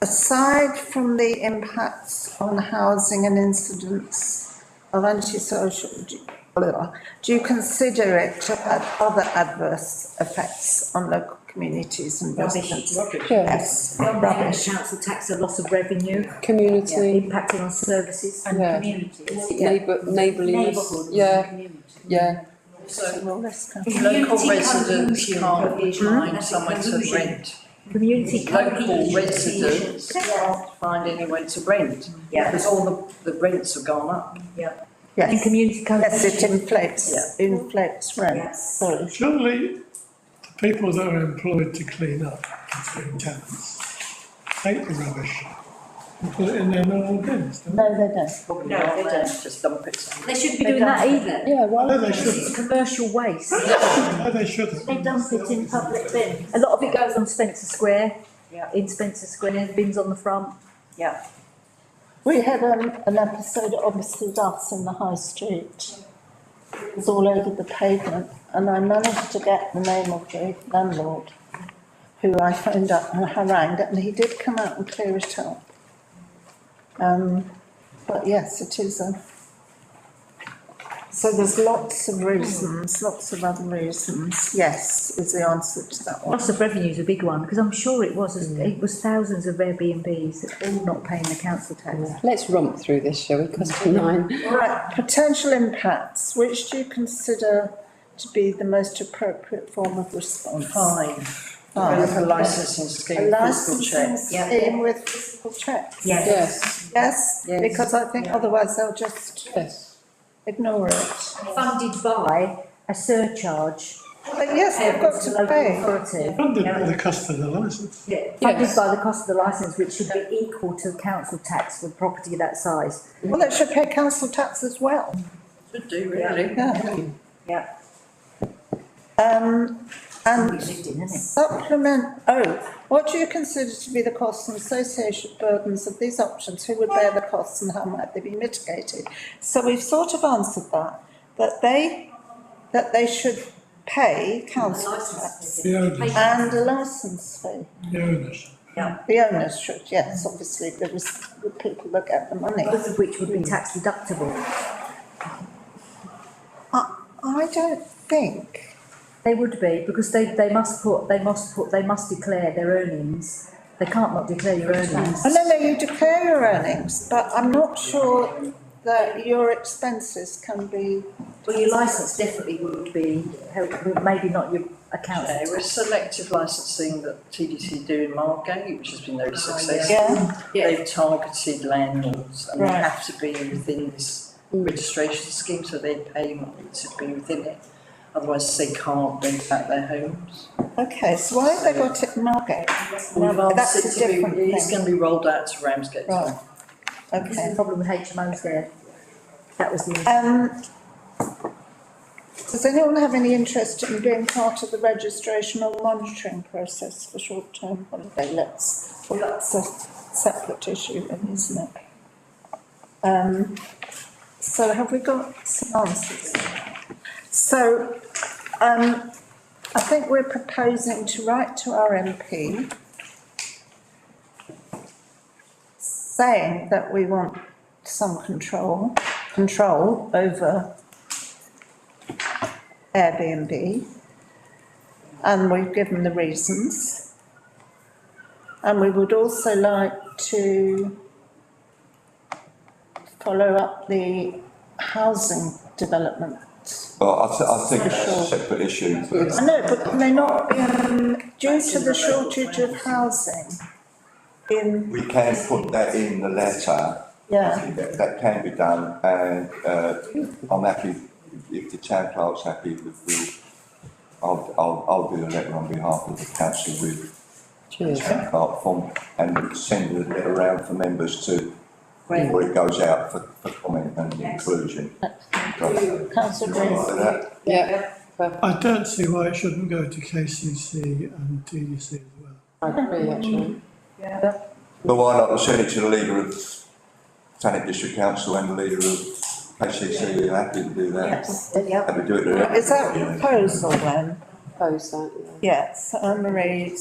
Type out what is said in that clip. aside from the impacts on housing and incidents of antisocial, do- blah, do you consider it to have other adverse effects on local communities and Rubbish. residents? Rubbish. yeah, Yes, Rubbish. rubbish. Council tax, a loss of revenue, community, impacting on services and Yeah. communities. neighbour, neighbourliness, Neighbourhoods and yeah, communities. yeah, So Well, this can- local Community residents cohesion. can't find That's a somewhere to cohesion. rent. Community Local cohesion. residents can't find anywhere to rent. Yeah, Because all the, the rents have gone up. and Yes, community yes, it cohesion. inflates, inflates rents, Yes. sorry. Surely, the people that are employed to clean up, clean tenants, take the rubbish and put it in their normal bins, don't No, they don't. Probably No, not they there, don't. Just dump it somewhere. They shouldn't be They doing that don't. either. yeah, well, they? No, they Because it's shouldn't, commercial waste. no, they shouldn't. They dump it in public bins. A lot of it goes on Spencer Square. Yeah. In Spencer Square, bins on the front. Yeah. We had um, an episode of Mr. Duff's in the high street. It was all over the pavement and I managed to get the name of the landlord who I phoned up and harangued and he did come out and clear it up. Um, but yes, it is a. So there's lots of reasons, lots of other reasons. Yes, is the answer to that one. Loss of revenue is a big one, because I'm sure it was, Mm. it was thousands of Airbnbs that all not paying the council tax. let's romp through this, shall we, question nine, Right, potential impacts, which do you consider to be the most appropriate form of response? Fine. Fine. With a licensing scheme, A licensing physical check. Yeah. scheme with physical checks? yes, Yes, Yes. because I think otherwise they'll just yes. ignore it. Funded by a surcharge. But yes, they've um, got to the local pay. Authority. Funded by the cost of the licence. Yeah, Funded Yes. by the cost of the licence, which should be equal to council tax for property that size. Well, they should pay council tax as well, Should do, really. yeah. Yeah. Um, and Lived in, isn't it? supplement, oh, what do you consider to be the costs and associated burdens of these options? Who would bear the costs and how might they be mitigated? So we've sort of answered that, that they, that they should pay council tax The owners, Oh, and a licence fee. the owners. The owners should, yes, obviously, the res- the people that get the money. Both of which Hmm. would be tax deductible. I, I don't think, They would be, because they, they must put, they must put, they must declare their earnings. They can't not declare your earnings. I don't know, you declare your earnings, but I'm not sure that your expenses can be Well, your licence definitely would be, held- maybe not your account. Yeah, it was selective licensing that TDC do in Margate, which has been very successful. Yeah, They've targeted landlords and they Right. Mm. have to be within this registration scheme, so their payment to be within it. Otherwise, they can't rent out their homes. okay, so why have they got it in Margate? No, that's a It's to be- different It's thing. gonna be rolled out to Ramsgate. Right, This is okay. the problem with HMOs there. That was the. Um, does anyone have any interest in being part of the registration or monitoring process for short-term holiday lets? Well, that's a separate issue, then, isn't it? Um, so have we got some answers? So, um, I think we're proposing to write to our MP saying that we want some control, control over Airbnb. And we've given the reasons. And we would also like to follow up the housing development. Well, I, th- I think that's Sure. a separate issue, but I know, but may not be, um, due to the shortage of housing in, we can put that in the letter. I yeah. think That, that can be done, and, uh, I'm happy, if the town clerk's happy with the, I'll, I'll, I'll do the letter on behalf of the council with the Cheers. town clerk form, and send the letter around for members to, before it goes out for, for comment and inclusion. Councillor Right, Green. that- yeah, I don't see why it shouldn't go to KCC and TDC as well. I agree, actually, But why not send it to the leader of Thanet District Council and the leader of HCC, are happy to do that. Yeah. Happy to do it. Is that a proposal then? oppose that, yeah. Yes, Anne Marie